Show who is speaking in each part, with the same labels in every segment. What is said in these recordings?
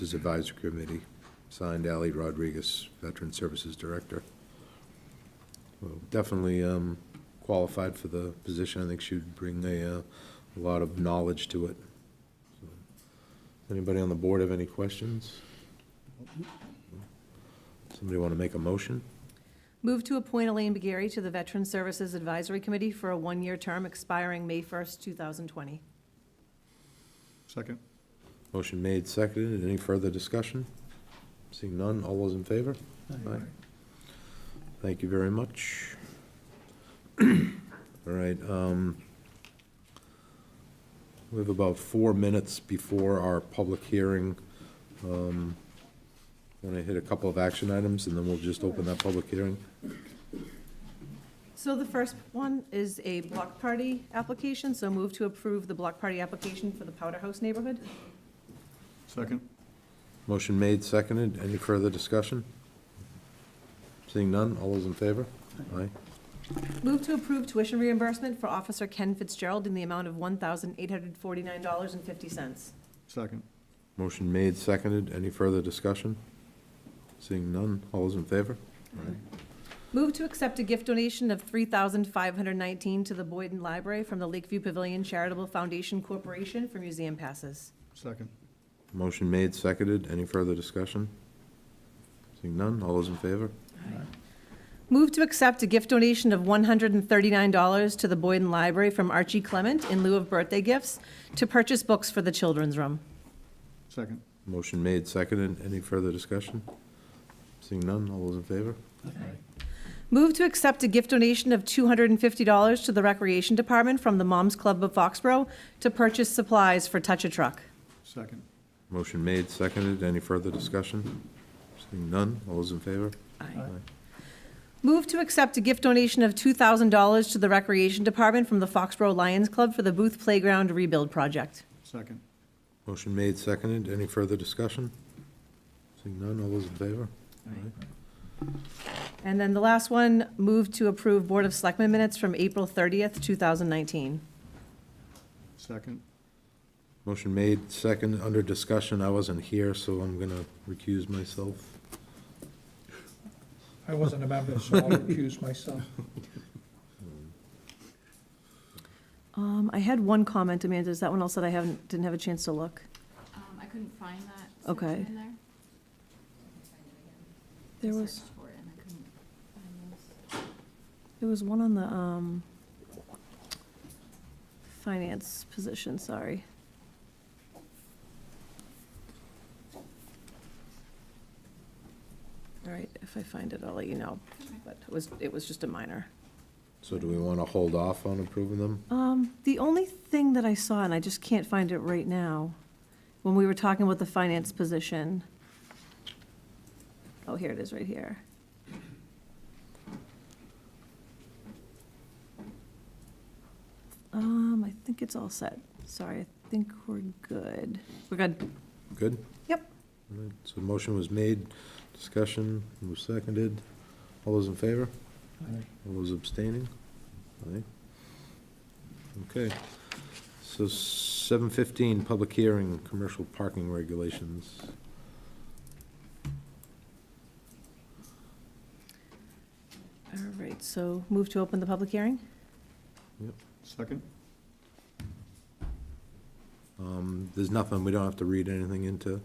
Speaker 1: Services Advisory Committee, signed Ali Rodriguez, Veteran Services Director. Well, Definitely um, qualified for the position. I think she'd bring a, uh, a lot of knowledge to it. So, Anybody on the board have any questions? Somebody want to make a motion?
Speaker 2: Move to appoint Elaine Begary to the Veteran Services Advisory Committee for a one-year term expiring May 1st, 2020.
Speaker 3: Second.
Speaker 1: Motion made, seconded. Any further discussion? Seeing none, all those in favor? Aye. Thank you very much. All right, um, we have about four minutes before our public hearing. Um, Want to hit a couple of action items, and then we'll just open that public hearing?
Speaker 2: So the first one is a block party application, so move to approve the block party application for the Powder House neighborhood.
Speaker 3: Second.
Speaker 1: Motion made, seconded. Any further discussion? Seeing none, all those in favor? Aye.
Speaker 2: Move to approve tuition reimbursement for Officer Ken Fitzgerald in the amount of $1,849.50.
Speaker 3: Second.
Speaker 1: Motion made, seconded. Any further discussion? Seeing none, all those in favor?
Speaker 2: Move to accept a gift donation of $3,519 to the Boyden Library from the Lakeview Pavilion Charitable Foundation Corporation for museum passes.
Speaker 3: Second.
Speaker 1: Motion made, seconded. Any further discussion? Seeing none, all those in favor?
Speaker 2: Move to accept a gift donation of $139 to the Boyden Library from Archie Clement in lieu of birthday gifts to purchase books for the children's room.
Speaker 3: Second.
Speaker 1: Motion made, seconded. Any further discussion? Seeing none, all those in favor?
Speaker 2: Move to accept a gift donation of $250 to the Recreation Department from the Moms Club of Foxborough to purchase supplies for Touch a Truck.
Speaker 3: Second.
Speaker 1: Motion made, seconded. Any further discussion? Seeing none, all those in favor?
Speaker 2: Move to accept a gift donation of $2,000 to the Recreation Department from the Foxborough Lions Club for the Booth Playground Rebuild Project.
Speaker 3: Second.
Speaker 1: Motion made, seconded. Any further discussion? Seeing none, all those in favor?
Speaker 2: And then the last one, move to approve Board of Selectmen minutes from April 30th, 2019.
Speaker 3: Second.
Speaker 1: Motion made, second, under discussion. I wasn't here, so I'm gonna recuse myself.
Speaker 4: I wasn't a member, so I'll recuse myself.
Speaker 2: Um, I had one comment, Amanda, is that one else that I haven't, didn't have a chance to look?
Speaker 5: Um, I couldn't find that
Speaker 2: Okay.
Speaker 5: section in there.
Speaker 2: There
Speaker 5: I
Speaker 2: was,
Speaker 5: searched for it and I couldn't find those.
Speaker 2: there was one on the, um, finance position, sorry. All right, if I find it, I'll let you know, but it was, it was just a minor.
Speaker 1: So do we wanna hold off on approving them?
Speaker 2: Um, the only thing that I saw, and I just can't find it right now, when we were talking about the finance position. Oh, here it is, right here. Um, I think it's all set. Sorry, I think we're good. We're good.
Speaker 1: Good?
Speaker 2: Yep.
Speaker 1: All right, So motion was made, discussion was seconded. All those in favor? All those abstaining? Aye. Okay. So seven fifteen, public hearing, commercial parking regulations.
Speaker 2: All right, so move to open the public hearing?
Speaker 3: Second.
Speaker 1: Um, there's nothing, we don't have to read anything into,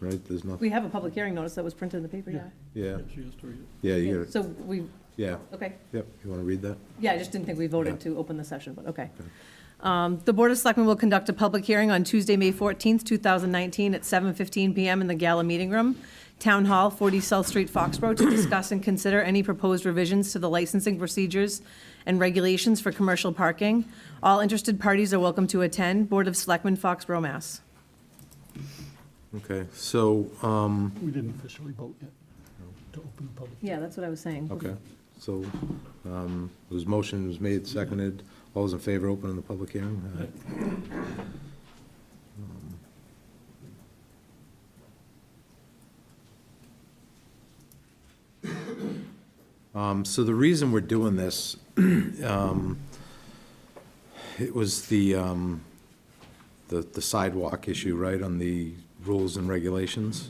Speaker 1: right? There's nothing,
Speaker 2: We have a public hearing notice that was printed in the paper, yeah.
Speaker 1: yeah,
Speaker 3: She has to read
Speaker 1: yeah, you got it,
Speaker 2: So we,
Speaker 1: yeah,
Speaker 2: okay.
Speaker 1: yep, you wanna read that?
Speaker 2: Yeah, I just didn't think we
Speaker 1: Yeah.
Speaker 2: voted to open the session, but okay.
Speaker 1: Okay.
Speaker 2: Um, The Board of Selectmen will conduct a public hearing on Tuesday, May 14th, 2019, at 7:15 PM in the Gala Meeting Room, Town Hall, 40 South Street, Foxborough, to discuss and consider any proposed revisions to the licensing procedures and regulations for commercial parking. All interested parties are welcome to attend. Board of Selectmen, Foxborough, Mass.
Speaker 1: Okay, so, um,
Speaker 6: We didn't officially vote yet to open the public.
Speaker 2: Yeah, that's what I was saying.
Speaker 1: okay, so, um, was motion was made, seconded, all those in favor, opening the public hearing? Aye. Um, so the reason we're doing this, um, it was the, um, the the sidewalk issue, right, on the rules and regulations.